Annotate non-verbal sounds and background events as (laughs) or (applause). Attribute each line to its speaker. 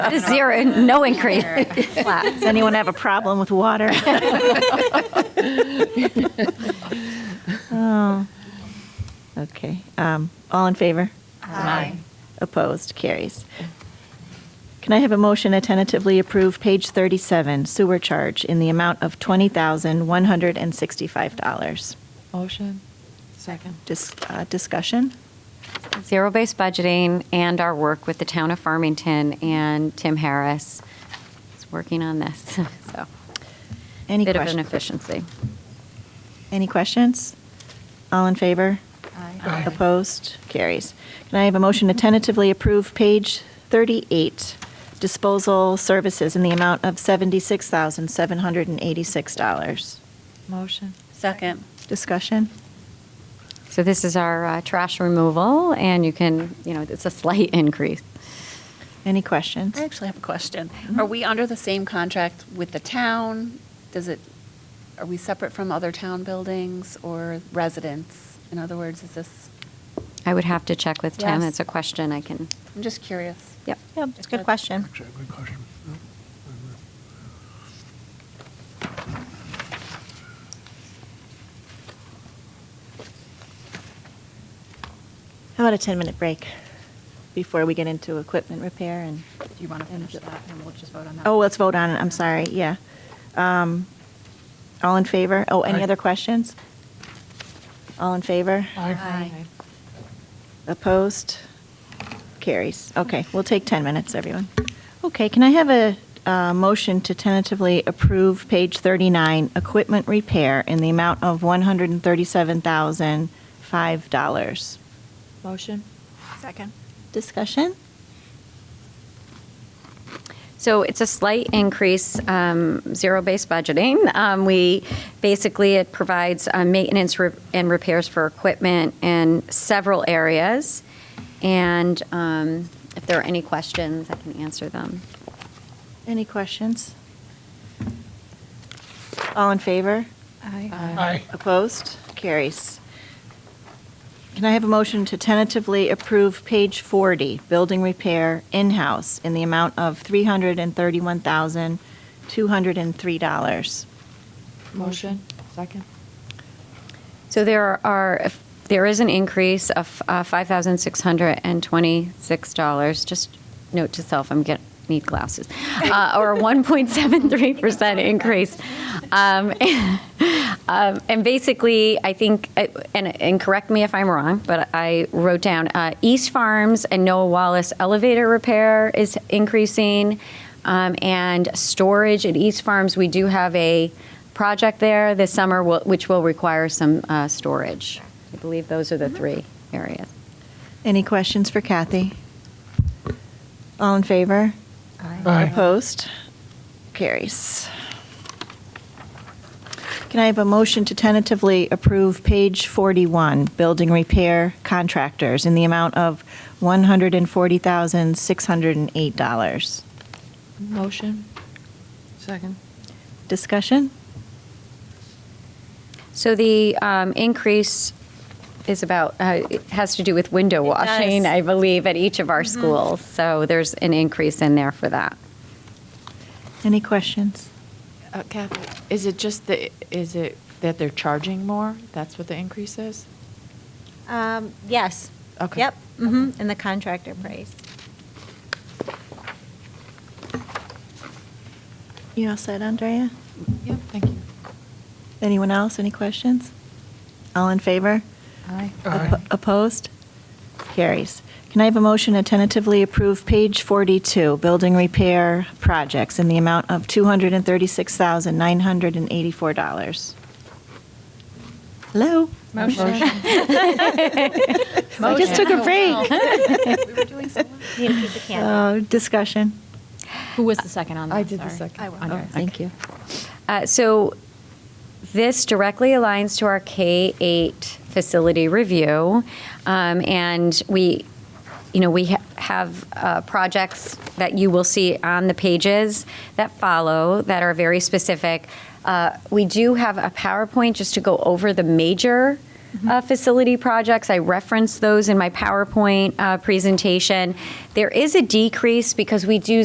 Speaker 1: (laughs) Zero, no increase.
Speaker 2: (laughs)
Speaker 1: Flat.
Speaker 2: Does anyone have a problem
Speaker 1: (laughs)
Speaker 2: with water? Oh. Okay, um, all in favor?
Speaker 1: Aye.
Speaker 2: Opposed, carries. Can I have a motion to tentatively approve page 37 sewer charge in the amount of $20,165?
Speaker 3: Motion. Second.
Speaker 2: Dis- uh, Discussion?
Speaker 1: Zero-based budgeting and our work with the town of Farmington and Tim Harris is working on this, (laughs) so.
Speaker 2: (laughs) Any
Speaker 1: Bit of
Speaker 2: question-
Speaker 1: inefficiency.
Speaker 2: Any questions? All in favor?
Speaker 3: Aye.
Speaker 2: Opposed? Carries. Can I have a motion to tentatively approve page 38, disposal services in the amount of $76,786?
Speaker 3: Motion.
Speaker 4: Second.
Speaker 2: Discussion?
Speaker 1: So this is our uh, trash removal, and you can, you know, it's a slight (laughs) increase.
Speaker 2: Any questions?
Speaker 4: I actually have a question. Are we under the same contract with the town? Does it, are we separate from other town buildings or residents? In other words, is this,
Speaker 1: I would have to check with Tim.
Speaker 4: Yes.
Speaker 1: It's a question I can,
Speaker 4: I'm just curious.
Speaker 1: yep.
Speaker 2: Yep, it's a good question.
Speaker 5: Actually, good question. No,
Speaker 2: How about a 10-minute break before we get into equipment repair and,
Speaker 4: Do you want to finish that and we'll just vote on that?
Speaker 2: oh, let's vote on it, I'm sorry, yeah. Um, All in favor? Oh, any
Speaker 5: Aye.
Speaker 2: other questions? All in favor?
Speaker 4: Aye.
Speaker 2: Opposed? Carries. Okay, we'll take 10 minutes, everyone. Okay, can I have a uh, motion to tentatively approve page 39, equipment repair, in the amount of $137,005?
Speaker 3: Motion. Second.
Speaker 2: Discussion?
Speaker 1: So it's a slight increase, um, zero-based budgeting. Um, We, basically, it provides uh, maintenance re- and repairs for equipment in several areas. And um, if there are any questions, I can answer them.
Speaker 2: Any questions? All in favor?
Speaker 3: Aye.
Speaker 5: Aye.
Speaker 2: Opposed? Carries. Can I have a motion to tentatively approve page 40, building repair in-house, in the amount of $331,203?
Speaker 3: Motion. Second.
Speaker 1: So there are, there is an increase of uh, $5,626, just note to self, I'm getting, need glasses, Uh, or a 1.73% increase. Um, um, And basically, I think, uh, and, and correct me if I'm wrong, but I wrote down, uh, East Farms and Noah Wallace elevator repair is increasing, um, and storage at East Farms, we do have a project there this summer, will- which will require some uh, storage. I believe those are the three areas.
Speaker 2: Any questions for Kathy? All in favor?
Speaker 5: Aye.
Speaker 2: Opposed? Carries. Can I have a motion to tentatively approve page 41, building repair contractors, in the amount of $140,608?
Speaker 3: Motion. Second.
Speaker 2: Discussion?
Speaker 1: So the um, increase is about, uh, it has to do with window washing, I believe, at each of our schools. So there's an increase in there for that.
Speaker 2: Any questions?
Speaker 3: Uh, Kathy, is it just the, is it that they're charging more? That's what the increase is?
Speaker 6: Um, yes.
Speaker 3: Okay.
Speaker 6: Yep, hmm and the contractor price.
Speaker 2: You all set, Andrea?
Speaker 3: Yep, thank you.
Speaker 2: Anyone else, any questions? All in favor?
Speaker 3: Aye.
Speaker 5: Aye.
Speaker 2: Oppo- Opposed? Carries. Can I have a motion to tentatively approve page 42, building repair projects, in the amount of $236,984? Hello?
Speaker 3: Motion. (laughs)
Speaker 2: I just took a break. (laughs)
Speaker 6: You didn't keep the candle.
Speaker 2: Oh, Discussion.
Speaker 7: Who was the second on that?
Speaker 3: I did the
Speaker 7: Sorry.
Speaker 3: second.
Speaker 2: Oh, Thank you.
Speaker 1: Uh, So this directly aligns to our K-8 facility review. Um, And we, you know, we ha- have uh, projects that you will see on the pages that follow that are very specific. Uh, We do have a PowerPoint just to go over the major uh, facility projects. I referenced those in my PowerPoint uh, presentation. There is a decrease because we do